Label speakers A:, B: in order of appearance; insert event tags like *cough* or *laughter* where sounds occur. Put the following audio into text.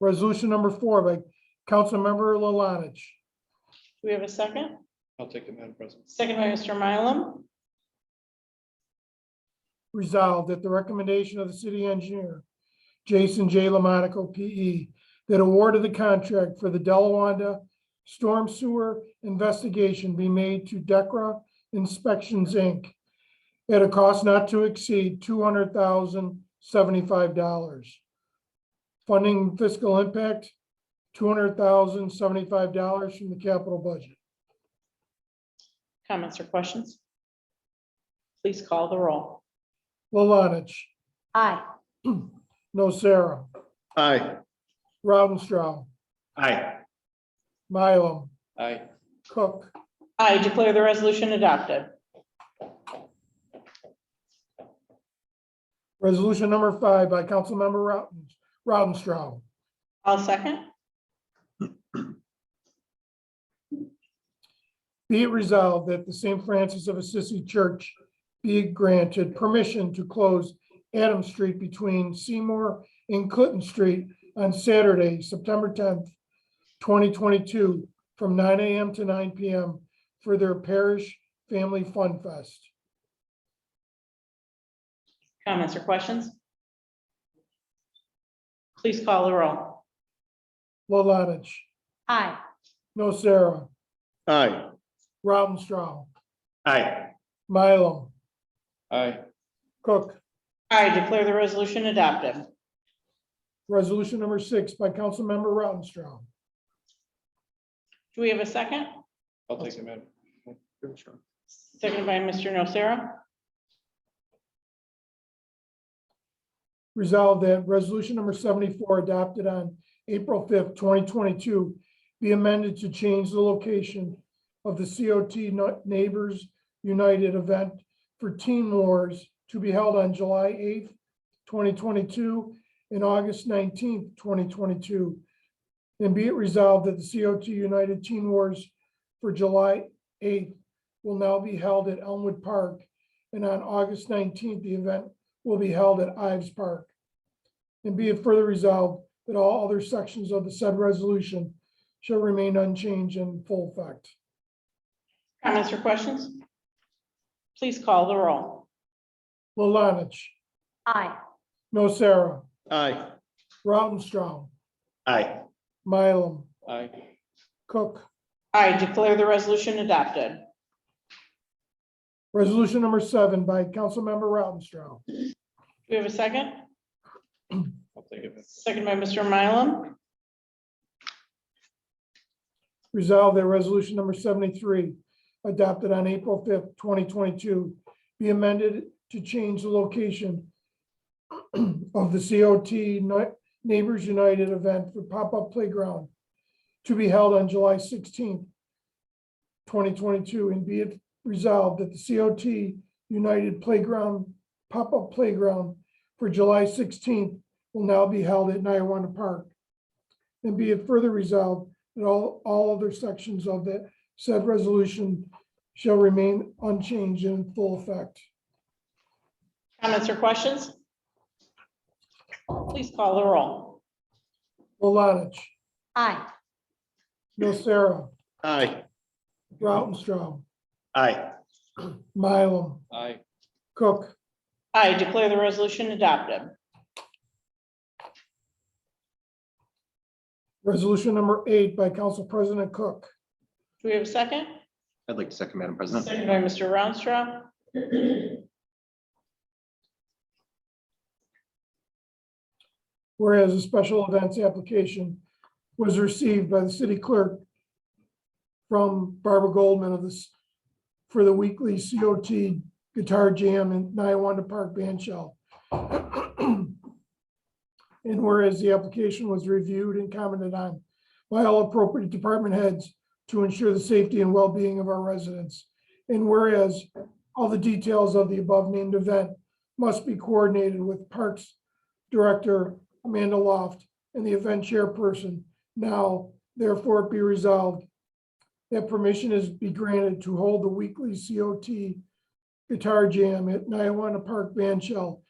A: Resolution number four by Councilmember Lalanich.
B: Do we have a second?
C: I'll take it, Madam President.
B: Second by Mr. Mylum.
A: Resolved at the recommendation of the city engineer, Jason J. Lamonaco, P.E., that award of the contract for the Delawanda Storm Sewer Investigation be made to Decra Inspections, Inc. at a cost not to exceed two hundred thousand seventy-five dollars. Funding fiscal impact, two hundred thousand seventy-five dollars from the capital budget.
B: Comments or questions? Please call the roll.
A: Lalanich,
B: Aye.
A: *clears throat* Nocera,
C: Aye.
A: Rautenstrau,
C: Aye.
A: Mylum,
C: Aye.
A: Cook.
B: I declare the resolution adopted.
A: Resolution number five by Councilmember Routen, Rautenstrau.
B: I'll second.
A: Be it resolved that the St. Francis of Assisi Church be granted permission to close Adam Street between Seymour and Clinton Street on Saturday, September tenth, twenty twenty-two, from nine AM to nine PM for their parish family fun fest.
B: Comments or questions? Please call the roll.
A: Lalanich,
B: Aye.
A: Nocera,
C: Aye.
A: Rautenstrau,
C: Aye.
A: Mylum,
C: Aye.
A: Cook.
B: I declare the resolution adopted.
A: Resolution number six by Councilmember Rautenstrau.
B: Do we have a second?
C: I'll take it, Madam. Sure.
B: Seconded by Mr. Nocera.
A: Resolved that resolution number seventy-four adopted on April fifth, twenty twenty-two be amended to change the location of the COT No- Neighbors United event for Teen Wars to be held on July eighth, twenty twenty-two and August nineteenth, twenty twenty-two. And be it resolved that the COT United Teen Wars for July eighth will now be held at Elmwood Park. And on August nineteenth, the event will be held at Ives Park. And be it further resolved that all other sections of the said resolution shall remain unchanged in full effect.
B: Comments or questions? Please call the roll.
A: Lalanich,
B: Aye.
A: Nocera,
C: Aye.
A: Rautenstrau,
C: Aye.
A: Mylum,
C: Aye.
A: Cook.
B: I declare the resolution adopted.
A: Resolution number seven by Councilmember Rautenstrau.
B: Do we have a second?
C: I'll take it.
B: Seconded by Mr. Mylum.
A: Resolved that resolution number seventy-three, adopted on April fifth, twenty twenty-two, be amended to change the location *clears throat* of the COT Ni- Neighbors United event for pop-up playground to be held on July sixteenth, twenty twenty-two, and be it resolved that the COT United Playground, pop-up playground for July sixteenth will now be held at Nyiwanah Park. And be it further resolved that all, all other sections of the said resolution shall remain unchanged and in full effect.
B: Comments or questions? Please call the roll.
A: Malatch,
B: Aye.
A: Nocera,
C: Aye.
A: Rautenstrau,
C: Aye.
A: Mylum,
C: Aye.
A: Cook.
B: I declare the resolution adopted.
A: Resolution number eight by Council President Cook.
B: Do we have a second?
C: I'd like to second, Madam
B: Seconded by Mr. Rounstrau.
A: Whereas a special events application was received by the city clerk from Barbara Goldman of this, for the weekly COT Guitar Jam in Niawanda Park Band Shell. And whereas the application was reviewed and commented on by all appropriate department heads to ensure the safety and well-being of our residents. And whereas all the details of the above named event must be coordinated with Parks Director Amanda Loft and the event chairperson. Now, therefore, be resolved that permission is be granted to hold the weekly COT Guitar Jam at Nyiwanah Park Band Shell